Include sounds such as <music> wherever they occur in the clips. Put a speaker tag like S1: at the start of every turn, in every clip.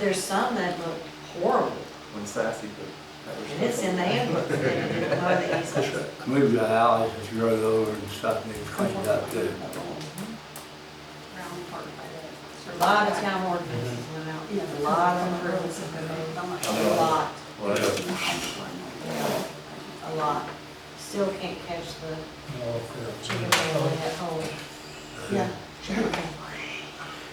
S1: there's some that look horrible,
S2: When sassy, but. that was-
S1: and it's in the handbook, they didn't even mow
S2: <laughs>
S1: the easements.
S3: Move the alleys that's grow over and stuff, and they clean it up too.
S4: Round part by
S1: A
S4: the-
S1: lot of town ordinances
S2: Mm-hmm.
S1: went out, a lot of improvements have been made, a lot,
S2: Well, yeah.
S1: a lot. Still can't catch the chicken wing on that hole. Yeah.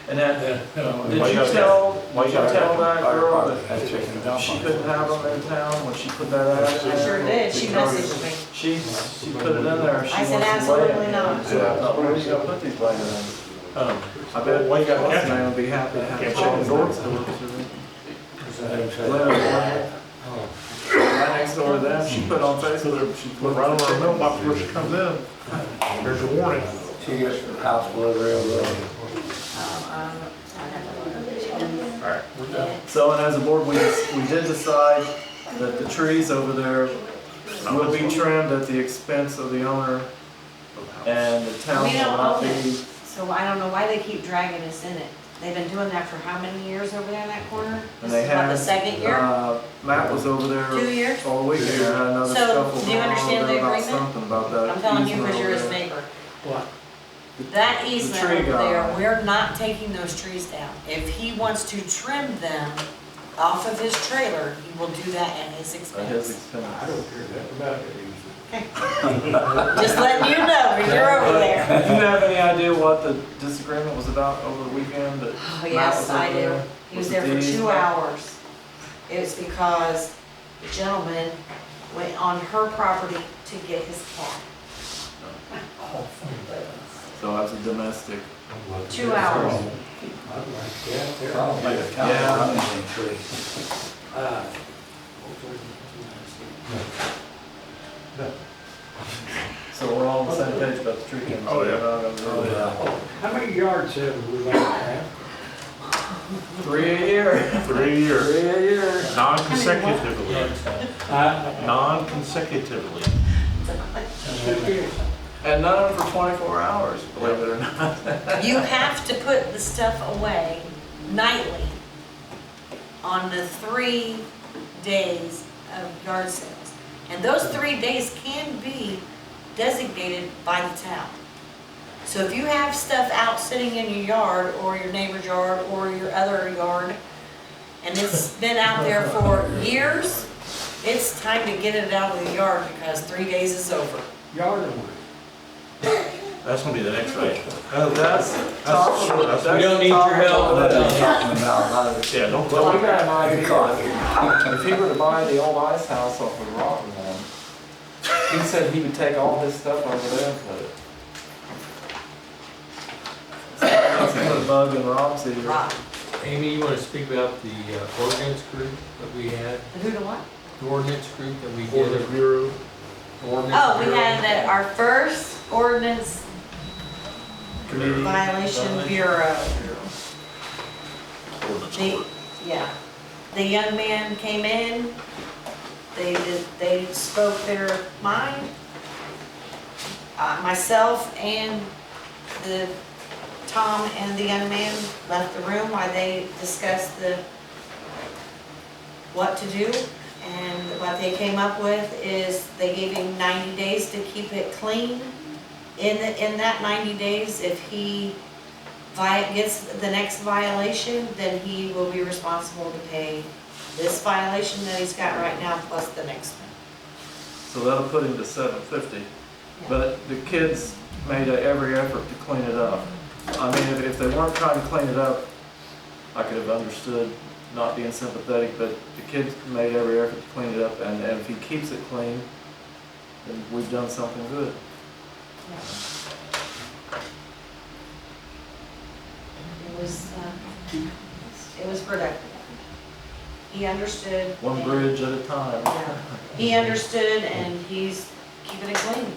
S2: And that,
S5: Yeah, you know,
S2: did you tell, did you tell that girl that
S3: That's chicken dump.
S2: she couldn't have them in town when she put that out?
S1: I sure did, she messaged me.
S2: She, she put it in there, she
S1: I
S2: wants to
S1: said,
S2: weigh it.
S1: absolutely not.
S2: So I thought, where's gonna put these lights
S5: um,
S2: on? I bet Wayne got one, and I'll be happy to have
S5: Yeah.
S2: it on the door. Oh. Right next door to them, she put on Facebook, she put right on her mailbox where she comes in, there's a warning.
S3: She gets the house delivery of the.
S2: So, and as a board, we, we did decide that the trees over there will be trimmed at the expense of the owner, and the town
S1: We
S2: will
S1: don't own
S2: not be.
S1: it. So I don't know why they keep dragging us in it. They've been doing that for how many years over there in that corner? This
S2: And they
S1: is about the
S2: have,
S1: second year,
S2: Uh, Matt was over there
S1: two years?
S2: all week, and had another
S1: So,
S2: scuffle
S1: do you
S2: going on
S1: understand
S2: over
S1: the
S2: there about
S1: agreement?
S2: something about that.
S1: I'm telling you,
S2: easement
S1: because you're
S2: over
S1: his
S2: there.
S1: neighbor. That easement
S2: tree
S1: over there,
S2: guy.
S1: we're not taking those trees down. If he wants to trim them off of his trailer, he will do that at his
S2: At
S1: expense.
S2: his expense.
S1: Just letting you know, 'cause you're over there.
S2: <laughs> Do you have any idea what the disagreement was about over the weekend? that
S1: Oh,
S2: Matt
S1: yes,
S2: was
S1: I
S2: over
S1: do.
S2: there?
S1: He was
S2: it
S1: there
S2: the
S1: for two
S2: easement?
S1: hours. It was because the gentleman went on her property to get his car.
S2: So that's a domestic.
S1: Two hours.
S3: Probably the town.
S2: Yeah.
S3: running tree.
S2: So we're all on the same page about the tree cams.
S5: Oh, yeah.
S3: Oh, yeah.
S6: How many yards have we like to have?
S2: Three a year. <laughs>
S5: Three years,
S2: Three a year.
S5: non-consecutively,
S6: Uh,
S5: non-consecutively.
S2: And none for twenty-four hours, believe it or not.
S1: You have to put the stuff away nightly on the three days of yard sales. And those three days can be designated by the town. So if you have stuff out sitting in your yard or your neighbor's yard or your other yard, and it's been out there for years, it's time to get it out of the yard because three days is over.
S6: Yard or what?
S5: That's gonna be the next item.
S2: That's top of the-
S5: That's-
S2: that's
S5: we don't need
S2: top
S5: your help.
S2: of
S3: What are
S2: the-
S3: you talking about? How does-
S5: Yeah, don't
S2: Well,
S5: tell
S2: I
S5: me.
S2: got <laughs> an idea. If he were to buy the old ice house off of Rotten one, he said he would take all his stuff over there and put it. Let's put a bug in Rob's ear.
S1: Rob,
S7: Amy, you want to speak about the uh, ordinance group that we had,
S1: who to what?
S7: the ordinance group that we
S5: Board
S7: did?
S5: of Bureau.
S7: ordinance
S1: Oh, we
S7: bureau?
S1: had that, our first ordinance
S2: Community
S1: violation bureau. The, yeah, the young man came in, they did, they spoke their mind. Uh, myself and the, Tom and the young man left the room while they discussed the, what to do. And what they came up with is they gave him ninety days to keep it clean. In, the- in that ninety days, if he vi- gets the next violation, then he will be responsible to pay this violation that he's got right now plus the next one.
S2: So that'll put him to seven fifty. But the kids made a- every effort to clean it up. I mean, if, if they weren't trying to clean it up, I could have understood not being sympathetic, but the kids made every effort to clean it up, and, and if he keeps it clean, then we've done something good.
S1: It was, uh, it was productive. He understood.
S2: One
S1: and-
S2: bridge at a time.
S1: Yeah. He understood and he's keeping it clean.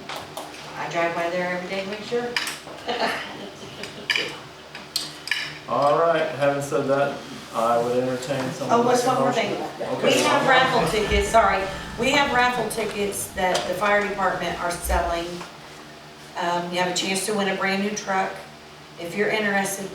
S1: I drive by there every day to make sure.
S2: All right, having said that, I would entertain some.
S1: Oh, what's one more thing? We
S2: Okay.
S1: have raffle tickets, sorry, we have raffle tickets that the fire department are selling. Um, you have a chance to win a brand new truck. If you're interested,